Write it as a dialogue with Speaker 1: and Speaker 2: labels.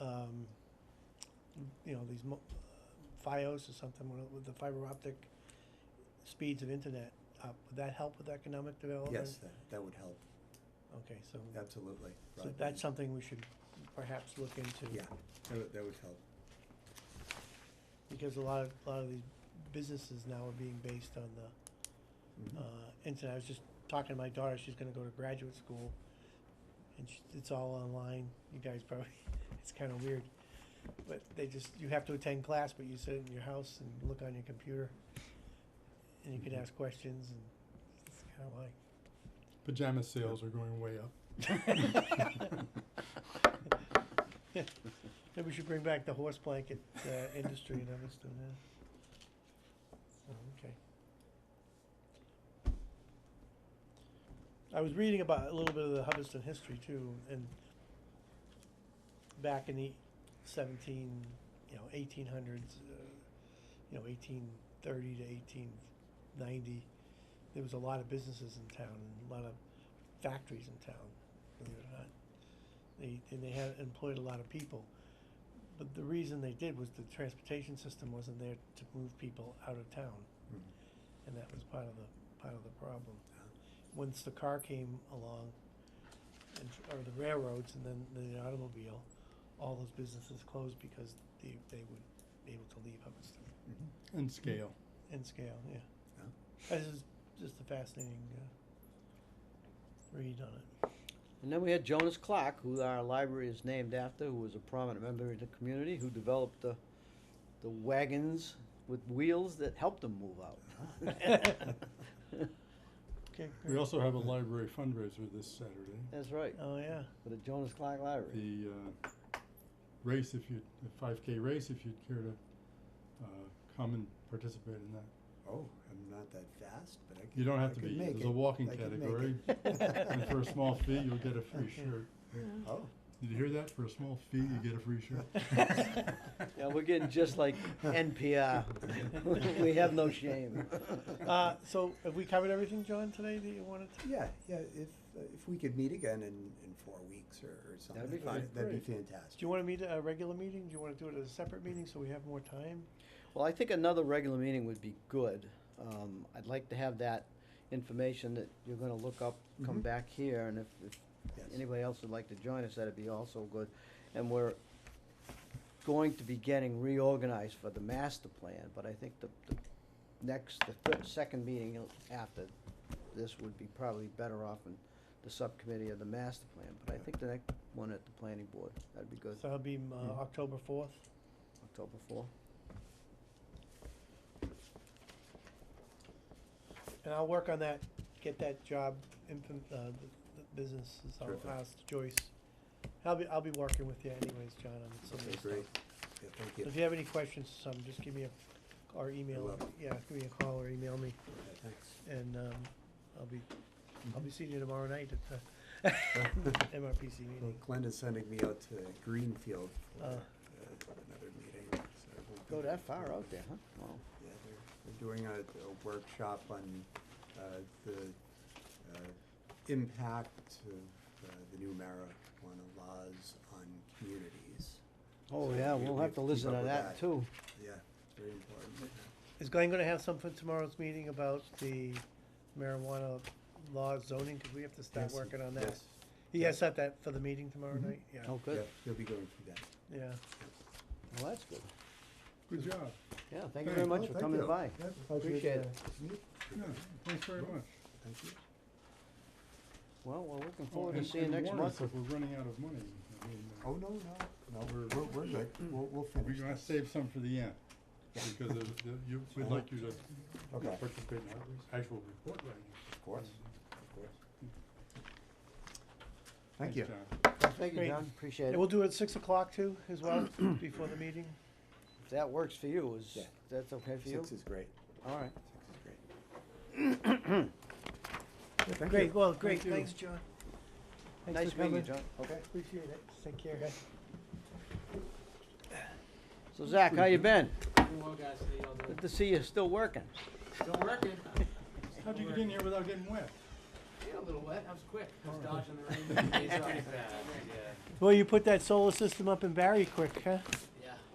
Speaker 1: um, you know, these mo- uh, FiOS or something with- with the fiber optic speeds of internet up, would that help with economic development?
Speaker 2: Yes, that, that would help,
Speaker 1: Okay, so,
Speaker 2: absolutely.
Speaker 1: so
Speaker 2: broadband.
Speaker 1: that's something we should perhaps look into.
Speaker 2: Yeah, that would, that would help.
Speaker 1: Because a lot of, a lot of these businesses now are being based on the
Speaker 2: Mhm.
Speaker 1: uh, internet. I was just talking to my daughter. She's going to go to graduate school, and sh it's all online. You guys probably, it's kind of weird, but they just you have to attend class, but you sit in your house and look on your computer, and you can
Speaker 2: Mhm.
Speaker 1: ask questions, and it's kind of like
Speaker 3: Pajama sales are going way up.
Speaker 1: maybe we should bring back the horse blanket uh, industry and others to that. So, Oh, okay. I was reading about a little bit of the Hubbardston history too, and back in the seventeen, you know, eighteen hundreds, uh, you know, eighteen thirty to eighteen ninety, there was a lot of businesses in town and a lot of factories in town. Believe it or not, they and they had employed a lot of people, but the reason they did was the transportation system wasn't there to move people out of town,
Speaker 2: Mhm.
Speaker 1: and that was part of the part of the problem once the car came along, and, tr- or the railroads and then the automobile, all those businesses closed because they, they would be able to leave Hubbardston
Speaker 2: Mhm.
Speaker 3: And scale.
Speaker 1: in scale, yeah.
Speaker 2: Yeah.
Speaker 1: This is just a fascinating, uh, read on it.
Speaker 4: And then we had Jonas Clark, who our library is named after, who was a prominent member of the community, who developed the, the wagons with wheels that helped them move out.
Speaker 1: Okay,
Speaker 3: We
Speaker 1: great.
Speaker 3: also have a library fundraiser this Saturday
Speaker 4: That's right,
Speaker 1: Oh, yeah,
Speaker 4: for the Jonas Clark Library.
Speaker 3: the uh, race if you the 5k race if you'd care to uh, come and participate in that
Speaker 2: Oh, I'm not that fast, but I can.
Speaker 3: you don't have
Speaker 2: I
Speaker 3: to
Speaker 2: can
Speaker 3: be
Speaker 2: make
Speaker 3: there's
Speaker 2: it.
Speaker 3: a walking
Speaker 2: I can make
Speaker 3: category
Speaker 2: it.
Speaker 3: and for a small fee you'll get a free shirt
Speaker 2: Oh.
Speaker 3: did you hear that for a small fee you get a free shirt
Speaker 4: Yeah, we're getting just like NPR. We have no shame.
Speaker 1: uh, so have we covered everything, John, today that you wanted to?
Speaker 2: Yeah, yeah, if, uh, if we could meet again in, in four weeks or, or something.
Speaker 4: be
Speaker 2: that'd-
Speaker 4: fine.
Speaker 2: That'd
Speaker 1: Do
Speaker 2: be fantastic.
Speaker 1: you wanna meet at a regular meeting? Do you wanna do it at a separate meeting so we have more time?
Speaker 4: Well, I think another regular meeting would be good. Um, I'd like to have that information that you're gonna look up, come
Speaker 2: Mhm.
Speaker 4: back here, and if, if
Speaker 2: Yes.
Speaker 4: anybody else would like to join us, that'd be also good. And we're going to be getting reorganized for the master plan, but I think the, the next, the third, second meeting after this would be probably better off in the subcommittee of the master plan, but I think the next one at the planning board, that'd be good,
Speaker 1: So it'll be, uh,
Speaker 2: Mhm.
Speaker 1: October fourth?
Speaker 4: October four.
Speaker 1: And I'll work on that, get that job, infant, uh, the, the business, I'll
Speaker 2: Terrific.
Speaker 1: ask Joyce. I'll be, I'll be working with you anyways, John, on some of
Speaker 2: Okay,
Speaker 1: this stuff.
Speaker 2: great. Yeah, thank
Speaker 1: So
Speaker 2: you.
Speaker 1: If you have any questions, some, just give me a, or email,
Speaker 2: will.
Speaker 1: yeah, give me a call or email me,
Speaker 2: Yeah, Thanks.
Speaker 1: and, um, I'll be, I'll
Speaker 2: Mhm.
Speaker 1: be seeing you tomorrow night at the MRPC
Speaker 2: Well,
Speaker 1: meeting.
Speaker 2: Glenn is sending me out to Greenfield for
Speaker 1: Oh.
Speaker 2: uh, another meeting. so I won't be
Speaker 4: Go
Speaker 2: there
Speaker 4: that far
Speaker 2: for-
Speaker 4: out there, huh? Wow.
Speaker 2: Yeah, they're, they're doing a, a workshop on, uh, the, uh, impact of, uh, the new marijuana laws on communities.
Speaker 4: Oh,
Speaker 2: So
Speaker 4: yeah,
Speaker 2: we-
Speaker 4: we'll
Speaker 2: we
Speaker 4: have to
Speaker 2: keep
Speaker 4: listen
Speaker 2: up
Speaker 4: to
Speaker 2: with
Speaker 4: that too.
Speaker 2: Yeah, it's very important.
Speaker 1: Is Glenn gonna have some for tomorrow's meeting about the marijuana law zoning, cause we have to start
Speaker 2: Yes,
Speaker 1: working on that?
Speaker 2: yes,
Speaker 1: He has set that for the meeting tomorrow
Speaker 2: Mhm.
Speaker 1: night, yeah,
Speaker 4: Oh,
Speaker 2: Yeah,
Speaker 4: good.
Speaker 2: he'll be going through that.
Speaker 1: yeah.
Speaker 4: Well, that's good.
Speaker 3: good job
Speaker 4: Yeah, thank you very
Speaker 2: Oh,
Speaker 4: much for coming by. Appreciate it.
Speaker 3: yeah, thanks very much
Speaker 2: Thank you.
Speaker 4: Well, we're looking
Speaker 3: Oh,
Speaker 4: forward to
Speaker 3: and-
Speaker 4: seeing you
Speaker 3: and
Speaker 4: next
Speaker 3: warn us
Speaker 4: month.
Speaker 3: if we're running out of money I mean, uh,
Speaker 2: Oh, no, no, no, we're, we're, we're good. We'll, we'll
Speaker 3: we're
Speaker 2: finish.
Speaker 3: gonna
Speaker 2: this.
Speaker 3: save some for the end because of the, you, we'd like you to
Speaker 2: Okay,
Speaker 3: participate in our actual report writing
Speaker 2: of course, of course. Mm-hmm. Thank you.
Speaker 3: Thanks, John.
Speaker 4: Thank you,
Speaker 1: Great.
Speaker 4: John, appreciate
Speaker 1: And
Speaker 4: it.
Speaker 1: we'll do it at six o'clock too, as well, before the meeting.
Speaker 4: If that works for you, is,
Speaker 2: Yeah.
Speaker 4: that's okay for you?
Speaker 2: Six is great.
Speaker 4: All right.
Speaker 2: Six is great. Yeah, thank
Speaker 1: Great,
Speaker 2: you.
Speaker 1: well, great,
Speaker 3: Thank you.
Speaker 1: thanks, John. Thanks
Speaker 4: Nice
Speaker 1: for
Speaker 4: meeting you,
Speaker 1: coming. Oh.
Speaker 4: John.
Speaker 2: Okay.
Speaker 1: Appreciate it, take care,
Speaker 4: So Zach, how you been?
Speaker 5: Well, guys, how y'all doing?
Speaker 4: Good to see you still working.
Speaker 5: Still working.
Speaker 3: How'd you get in here without getting wet?
Speaker 5: Get a little wet. I was quick. I was dodging the rain.
Speaker 1: Well, you put that solar system up in Barry quick, huh?